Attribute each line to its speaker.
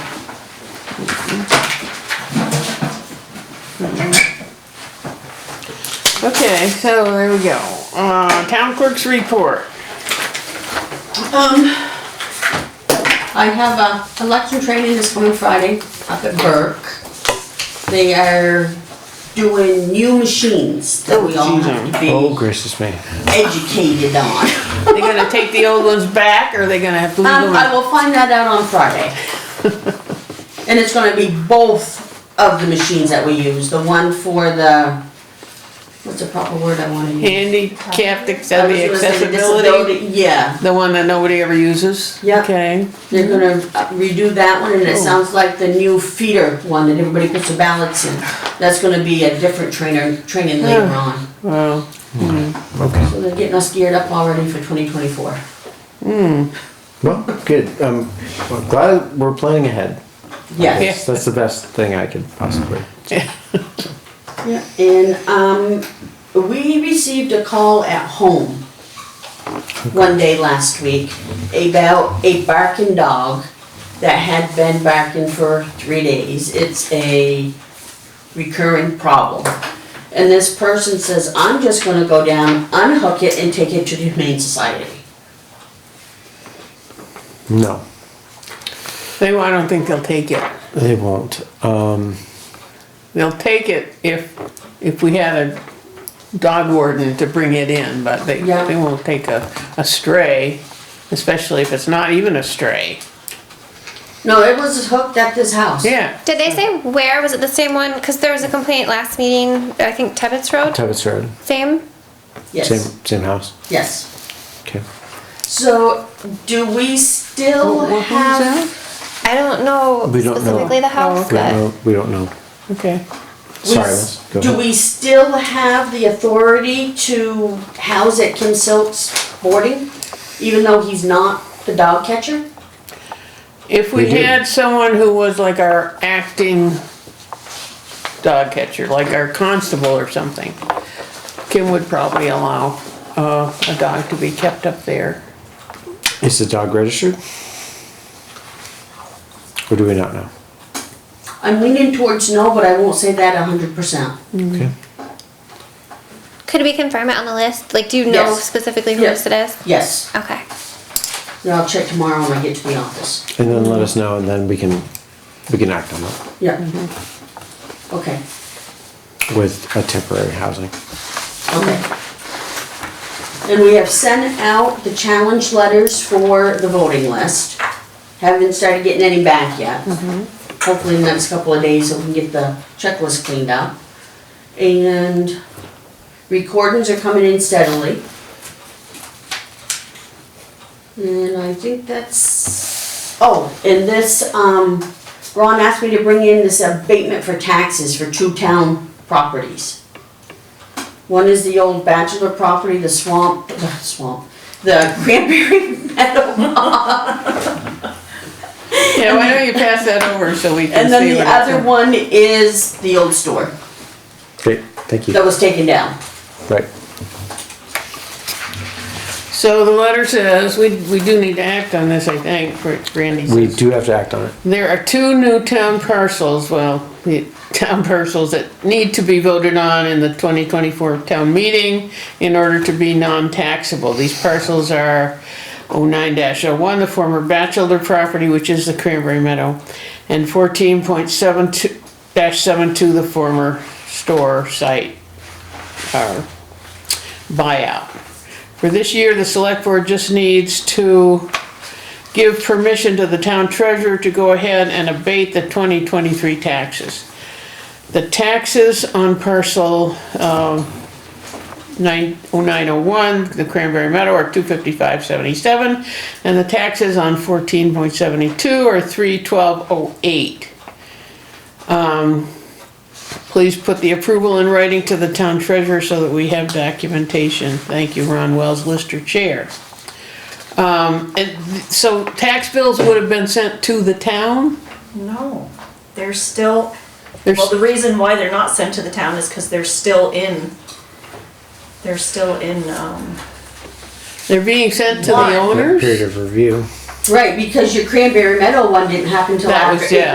Speaker 1: Okay, so there we go. Uh, town clerk's report.
Speaker 2: Um, I have a election training this coming Friday up at Burke. They are doing new machines that we all have to
Speaker 3: Oh,
Speaker 2: be
Speaker 3: gracious me.
Speaker 2: educated on.
Speaker 1: They gonna take the old ones back or they gonna have to leave
Speaker 2: Um, I
Speaker 1: them?
Speaker 2: will find that out on Friday. And it's gonna be both of the machines that we use, the one for the, what's the proper word I wanna use?
Speaker 1: Handicapped
Speaker 2: I was
Speaker 1: accessi-
Speaker 2: gonna say the
Speaker 1: accessibility,
Speaker 2: disability- Yeah,
Speaker 1: the one that nobody ever uses?
Speaker 2: Yep.
Speaker 1: Okay,
Speaker 2: they're gonna uh, redo that one, and it sounds like the new feeder one that everybody puts the ballots in. That's gonna be a different trainer, training later on.
Speaker 1: well,
Speaker 3: Okay.
Speaker 2: So they're getting us geared up already for twenty twenty-four.
Speaker 3: Well, good. Um, I'm glad we're planning ahead.
Speaker 2: Yes.
Speaker 3: That's, that's the best thing I could possibly.
Speaker 2: Yeah, and, um, we received a call at home one day last week about a barking dog that had been barking for three days. It's a recurring problem. And this person says, I'm just gonna go down, unhook it and take it to the Humane Society.
Speaker 3: No,
Speaker 1: they, I don't think they'll take it.
Speaker 3: they won't. Um,
Speaker 1: They'll take it if, if we had a dog warden to bring it in, but they,
Speaker 2: Yeah.
Speaker 1: they won't take a, a stray, especially if it's not even a stray.
Speaker 2: No, it was hooked at this house.
Speaker 1: Yeah,
Speaker 4: Did they say where? Was it the same one? Because there was a complaint last meeting, I think Tebbets Road?
Speaker 3: Tebbets Road,
Speaker 4: Same?
Speaker 3: same,
Speaker 2: Yes,
Speaker 3: same house.
Speaker 2: yes.
Speaker 3: Okay.
Speaker 2: So, do we still
Speaker 1: What- what was
Speaker 2: have?
Speaker 4: I don't know
Speaker 3: We don't know. Oh,
Speaker 4: specifically the house,
Speaker 3: We don't
Speaker 4: but
Speaker 3: know, we don't know.
Speaker 1: okay.
Speaker 2: We
Speaker 3: Sorry,
Speaker 2: s-
Speaker 3: Les, go
Speaker 2: Do
Speaker 3: ahead.
Speaker 2: we still have the authority to house at Kim Silk's boarding, even though he's not the dog catcher?
Speaker 1: If we
Speaker 3: We do.
Speaker 1: had someone who was like our acting dog catcher, like our constable or something, Kim would probably allow, uh, a dog to be kept up there.
Speaker 3: Is the dog registered? Or do we not know?
Speaker 2: I'm leaning towards no, but I won't say that a hundred percent.
Speaker 3: Okay.
Speaker 4: could we confirm it on the list? Like, do you know
Speaker 2: Yes.
Speaker 4: specifically whose
Speaker 2: Yes.
Speaker 4: it is?
Speaker 2: Yes,
Speaker 4: Okay.
Speaker 2: yeah, I'll check tomorrow when I get to the office.
Speaker 3: And then let us know and then we can, we can act on it
Speaker 2: Yeah. Okay,
Speaker 3: with a temporary housing.
Speaker 2: okay. And we have sent out the challenge letters for the voting list. Haven't started getting any back yet. Hopefully in the next couple of days, we can get the checklist cleaned up. And recordings are coming in steadily. And I think that's, oh, and this, um, Ron asked me to bring in this abatement for taxes for two town properties. One is the old bachelor property, the swamp, the swamp, the cranberry meadow.
Speaker 1: Yeah, why don't you pass that over so we can
Speaker 2: And
Speaker 1: see
Speaker 2: then the
Speaker 1: what
Speaker 2: other
Speaker 1: it's.
Speaker 2: one is the old store
Speaker 3: Great, thank
Speaker 2: that
Speaker 3: you.
Speaker 2: was taken down.
Speaker 3: Right.
Speaker 1: So the letter says, we, we do need to act on this, I think, for Randy
Speaker 3: We
Speaker 1: says.
Speaker 3: do have to act on it.
Speaker 1: There are two new town parcels, well, the town parcels that need to be voted on in the twenty twenty-four town meeting in order to be non-taxable. These parcels are oh 9 one the former bachelor property, which is the Cranberry Meadow, and fourteen point seven two, dash seven two, the former store site, uh, buyout. For this year, the select board just needs to give permission to the town treasurer to go ahead and abate the 2023 taxes. The taxes on parcel um, oh, 9 0901, the Cranberry Meadow are 255.77, and the taxes on 14.72 are 312.08. Um, Please put the approval in writing to the town treasurer so that we have documentation. Thank you, Ron Wells, Lister Chair. Um, and th- so tax bills would have been sent to the town?
Speaker 5: No, they're still,
Speaker 1: There's,
Speaker 5: well, the reason why they're not sent to the town is because they're still in, they're still in, um,
Speaker 1: they're being sent to the
Speaker 2: Why?
Speaker 1: owners?
Speaker 3: Period of review.
Speaker 2: Right, because your cranberry meadow one didn't happen till
Speaker 1: That
Speaker 2: after
Speaker 1: was, yeah.